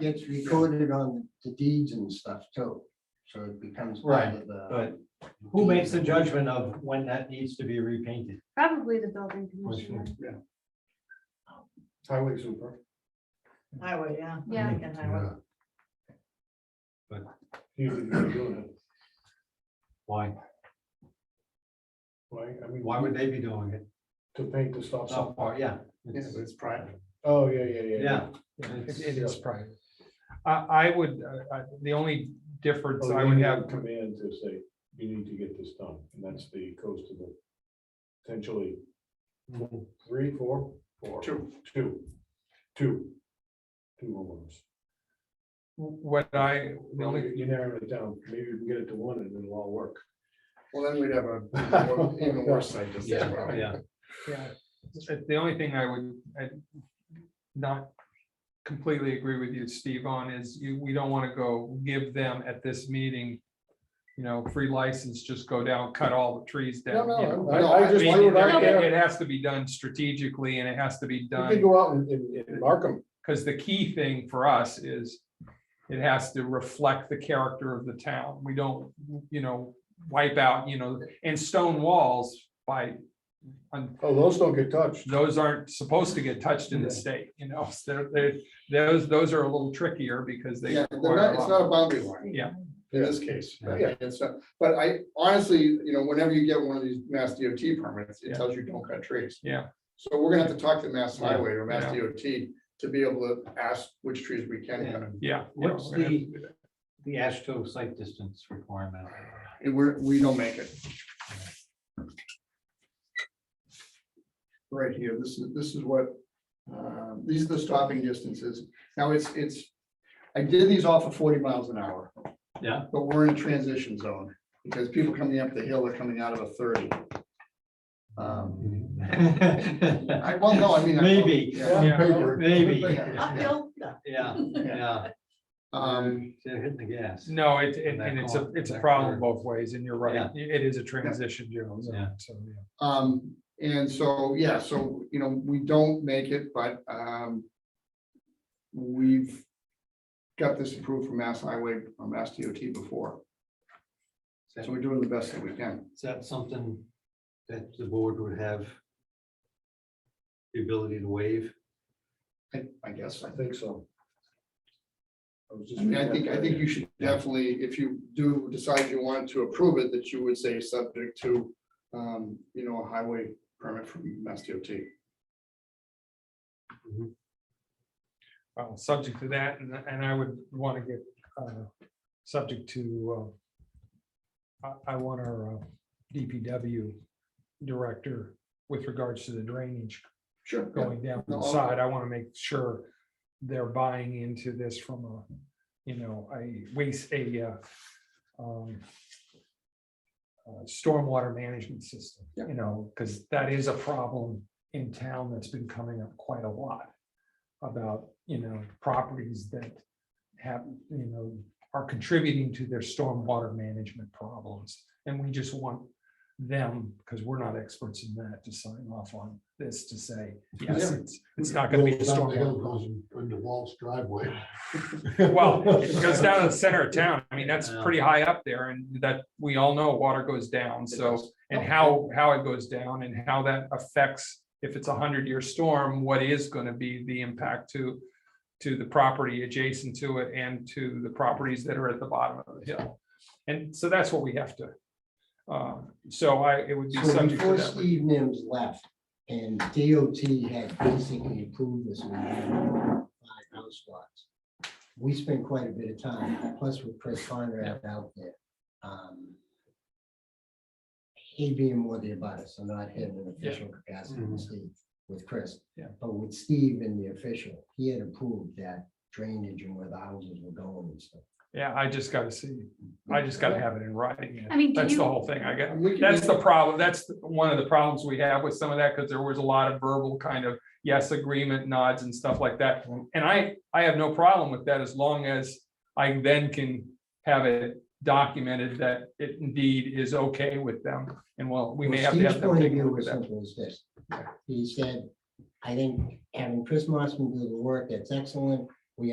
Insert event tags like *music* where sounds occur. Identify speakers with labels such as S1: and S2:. S1: gets recorded on the deeds and stuff too, so it becomes part
S2: Right,
S1: of the.
S2: But who makes the judgment of when that needs to be repainted?
S3: Probably the building
S2: Which
S3: commissioner.
S2: one?
S1: Highway super.
S4: Highway, yeah. I'm
S3: Yeah.
S4: thinking highway.
S2: Why?
S5: Why, I mean,
S2: Why would they be doing it?
S5: to paint the stop sign.
S6: Oh.
S2: So far, yeah.
S6: Yeah,
S2: it's-
S6: but it's private.
S5: Oh, yeah, yeah, yeah.
S2: Yeah.
S6: It
S2: it's-
S6: it is private. I, I would, uh, I- the only difference
S5: Oh,
S6: I
S5: you
S6: would
S5: need
S6: have,
S5: Command to say, you need to get this done, and that's the coast of the potentially three, four, four, two,
S6: Two.
S5: two, two homeowners.
S6: what I, the only
S5: You narrow it down, maybe we can get it to one and it'll all work.
S6: Well, then we'd have a
S5: even worse
S6: site
S2: Yeah,
S6: Yeah, uh, the- the only thing I would, i not completely agree with you, Steve, on is you, we don't want to go give them at this meeting, you know, free license, just go down, cut all the trees
S5: No,
S6: down. you know.
S5: no, I,
S6: I-
S5: I
S6: I
S5: just,
S6: mean,
S5: why would I
S6: It
S5: care?
S6: it has to be done strategically and it has to be
S5: You could
S6: done,
S5: go out and, and and mark them,
S6: because the key thing for us is it has to reflect the character of the town. We don't, you know, wipe out, you know, and stone walls by un-
S5: oh, those don't get touched.
S6: those aren't supposed to get touched in the state, you know, *laughs* so they're, they're, those, those are a little trickier because they.
S7: Yeah, they're
S6: require
S7: not-
S6: a
S7: it's
S6: lot-
S7: not a boundary line.
S6: Yeah.
S7: In this case, but
S5: Yeah.
S7: yeah, it's not, but I honestly, you know, whenever you get one of these mass DOT permits,
S6: Yeah.
S7: it tells you don't cut trees.
S6: Yeah.
S7: So we're gonna have to talk to Mass
S2: Yeah.
S7: Highway or Mass
S6: Yeah.
S7: DOT to be able to ask which trees we can cut.
S6: Yeah. yeah,
S2: What's
S6: we're gonna have
S2: the,
S6: to do that.
S2: the ASHTO site distance requirement?
S7: And we're, we don't make it. Right here, this is, this is what, uh, these are the stopping distances. Now, it's, it's, I did these off of forty miles an hour.
S2: Yeah.
S7: But we're in a transition zone because people coming up the hill are coming out of a thirty. Um, I, well, no, I mean. I-
S2: *laughs* Maybe,
S7: Yeah.
S6: Yeah.
S2: maybe,
S4: Uphill, no.
S2: yeah, yeah.
S7: Um,
S2: They're hitting the gas.
S6: No, it, it-
S2: Back
S6: and it's a,
S2: off,
S6: it's a
S2: back
S6: problem
S2: curve.
S6: both ways and you're right.
S2: Yeah.
S6: It is a transition zone,
S2: Yeah.
S6: so, yeah.
S7: Um, and so, yeah, so, you know, we don't make it, but, um. We've. Got this approved from Mass Highway, or Mass DOT before,
S2: Is
S7: so we're doing the best that we can.
S2: that something that the board would have the ability to waive?
S7: I, I guess,
S5: I think so. I was just
S7: I mean, I
S5: reading
S7: think,
S5: that
S7: I
S5: the other
S7: think
S5: day.
S7: you should definitely, if you do decide you want to approve it, that you would say subject to. Um, you know, a highway permit from Mass DOT.
S6: Well, uh, subject to that, and, and I would want to get, uh, subject to, uh, I, I want our uh, DPW director with regards to the drainage
S7: Sure.
S6: going down the
S7: No, I'll-
S6: side, I want to make sure they're buying into this from a, you know, a waste, a, uh, um, uh, stormwater management system,
S7: Yeah.
S6: you know, because that is a problem in town that's been coming up quite a lot about, you know, properties that have, you know, are contributing to their stormwater management problems. And we just want them, because we're not experts in that, to sign off on this to say, yes,
S5: Yeah.
S6: it's, it's not gonna be
S7: *laughs*
S6: a stormwater. problem.
S5: Into Walt's driveway. *laughs*
S6: Well, it goes down to the center of town. I mean, that's
S2: Yeah.
S6: pretty high up there and that, we all know water goes down, so. And
S7: Oh,
S6: how, how it goes down and how that affects, if it's a hundred year storm, what is gonna be the impact to. To the property adjacent to it and to the properties that are at the bottom of the hill. And so that's what we have to. Um, so I, it would be
S1: So
S6: subject to
S1: before
S6: that.
S1: Steve Nims left and DOT had basically approved this. and we had five house lots. We spent quite a bit of time, plus with Chris Conrad out there. um, He being more the abutter, so not him in official capacity
S2: Mhm.
S1: with Steve, with Chris.
S6: Mm-hmm. Yeah.
S1: But with Steve in the official, he had approved that drainage and where the houses were going and stuff.
S6: Yeah, I just gotta see, I just gotta have it in writing.
S3: I mean, do
S6: That's the
S3: you-
S6: whole thing. I got,
S7: And we can
S6: That's
S7: make-
S6: the problem. That's the- one of the problems we have with some of that, because there was a lot of verbal kind of yes agreement nods and stuff like that. And I, I have no problem with that as long as I then can have it documented that it indeed is okay with them. And well, we may
S1: Well,
S6: have to
S1: Steve's
S6: have them
S1: point of
S6: take a
S1: view
S6: look at
S1: was
S6: that.
S1: simple as this. He said, I think having Chris Mossman do the work, that's excellent.